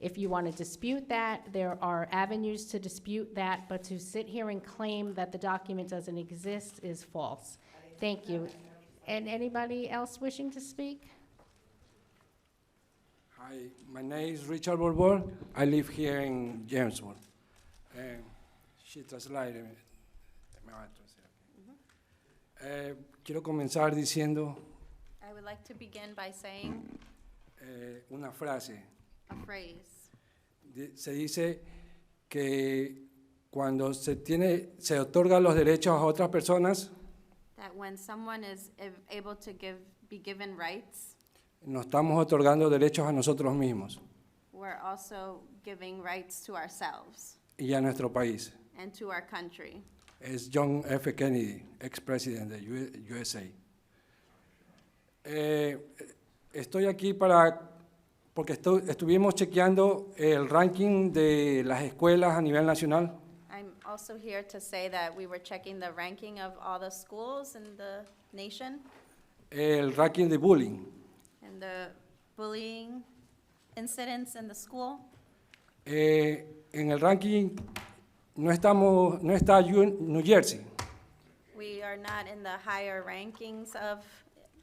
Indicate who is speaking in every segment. Speaker 1: If you want to dispute that, there are avenues to dispute that, but to sit here and claim that the document doesn't exist is false. Thank you. And anybody else wishing to speak?
Speaker 2: Hi, my name is Richard Borbor. I live here in Jamesburg. Um, shit, a slide, eh, me va a toser. Eh, quiero comenzar diciendo
Speaker 3: I would like to begin by saying
Speaker 2: eh, una frase.
Speaker 3: a phrase.
Speaker 2: Di- Se dice que cuando se, tiene, se otorgan los derechos a otras personas,
Speaker 3: That when someone is ev- able to give, be given rights,
Speaker 2: nos estamos otorgando derechos a nosotros mismos
Speaker 3: we're also giving rights to ourselves
Speaker 2: y a nuestro país.
Speaker 3: and to our country.
Speaker 2: es John F. Kennedy, expresidente de U- USA. Eh, estoy aquí para, porque estu- estuvimos chequeando el ranking de las escuelas a nivel nacional
Speaker 3: I'm also here to say that we were checking the ranking of all the schools in the nation
Speaker 2: el ranking de bullying.
Speaker 3: and the bullying incidents in the school.
Speaker 2: Eh, en el ranking no, estamos, no está Yu- New Jersey,
Speaker 3: We are not in the higher rankings of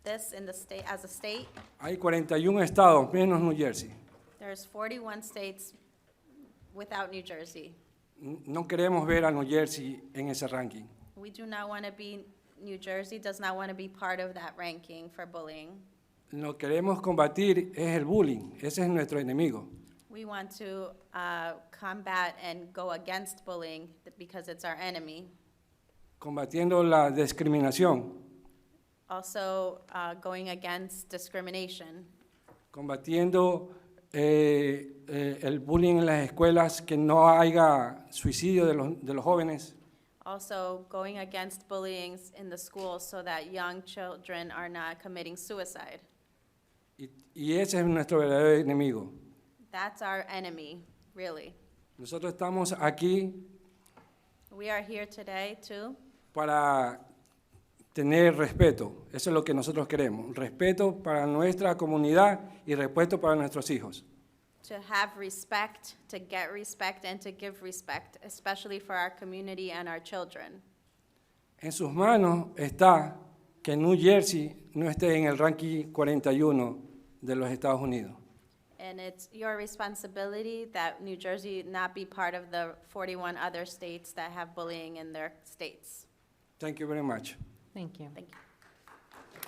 Speaker 3: this in the state, as a state.
Speaker 2: hay 41 estados menos New Jersey.
Speaker 3: There's 41 states without New Jersey.
Speaker 2: N- No queremos ver a New Jersey en ese ranking.
Speaker 3: We do not want to be, New Jersey does not want to be part of that ranking for bullying.
Speaker 2: Lo que queremos combatir es el bullying, ese es nuestro enemigo.
Speaker 3: We want to uh, combat and go against bullying because it's our enemy.
Speaker 2: combatiendo la discriminación,
Speaker 3: Also, uh, going against discrimination,
Speaker 2: combatiendo eh, eh, el bullying en las escuelas, que no haya suicidio de los, de los jóvenes,
Speaker 3: also going against bullying in the schools so that young children are not committing suicide.
Speaker 2: y, y ese es nuestro verdadero enemigo.
Speaker 3: That's our enemy, really.
Speaker 2: Nosotros estamos aquí
Speaker 3: We are here today to,
Speaker 2: para tener respeto, eso es lo que nosotros queremos, respeto para nuestra comunidad y respeto para nuestros hijos.
Speaker 3: to have respect, to get respect, and to give respect, especially for our community and our children.
Speaker 2: En sus manos está que New Jersey no esté en el ranking 41 de los Estados Unidos.
Speaker 3: And it's your responsibility that New Jersey not be part of the 41 other states that have bullying in their states.
Speaker 2: Thank you very much.
Speaker 1: Thank you.
Speaker 3: Thank you.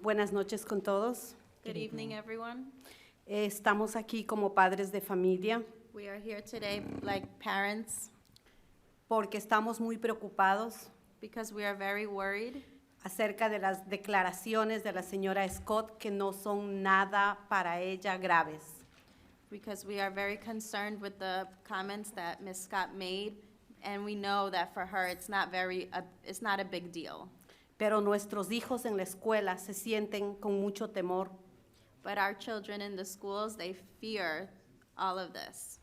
Speaker 4: Buenas noches con todos.
Speaker 3: Good evening, everyone.
Speaker 4: Eh, Estamos aquí como padres de familia
Speaker 3: We are here today like parents
Speaker 4: porque estamos muy preocupados
Speaker 3: because we are very worried
Speaker 4: acerca de las declaraciones de la señora Scott que no son nada para ella graves.
Speaker 3: because we are very concerned with the comments that Ms. Scott made, and we know that for her, it's not very, uh, it's not a big deal.
Speaker 4: Pero nuestros hijos en la escuela se sienten con mucho temor.
Speaker 3: But our children in the schools, they fear all of this.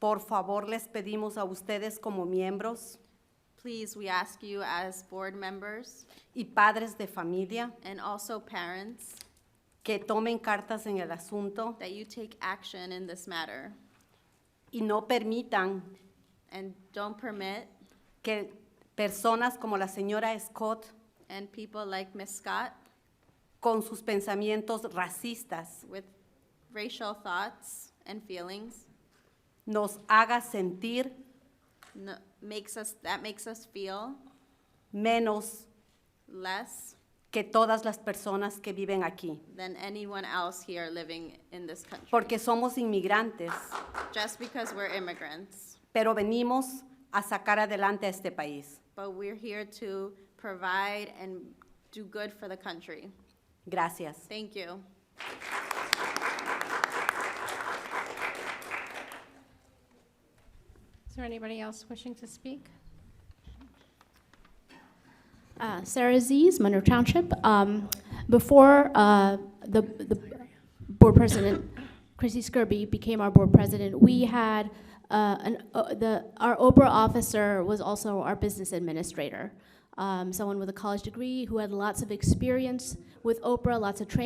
Speaker 4: Por favor, les pedimos a ustedes como miembros
Speaker 3: Please, we ask you as board members
Speaker 4: y padres de familia
Speaker 3: and also parents
Speaker 4: que tomen cartas en el asunto
Speaker 3: that you take action in this matter
Speaker 4: y no permitan
Speaker 3: and don't permit
Speaker 4: que personas como la señora Scott
Speaker 3: and people like Ms. Scott
Speaker 4: con sus pensamientos racistas
Speaker 3: with racial thoughts and feelings
Speaker 4: nos haga sentir
Speaker 3: no, makes us that makes us feel
Speaker 4: menos
Speaker 3: less
Speaker 4: que todas las personas que viven aquí,
Speaker 3: than anyone else here living in this country
Speaker 4: porque somos inmigrantes,
Speaker 3: just because we're immigrants
Speaker 4: pero venimos a sacar adelante a este país.
Speaker 3: but we're here to provide and do good for the country
Speaker 4: Gracias.
Speaker 3: thank you
Speaker 1: Is there anybody else wishing to speak?
Speaker 5: Uh, Sarah Z's, Monroe Township. Um, Before uh, the the board president, Chrissy Skirby, became our board president, we had, uh, an- uh, the, our Oprah officer was also our business administrator, Um, someone with a college degree who had lots of experience with Oprah, lots of training.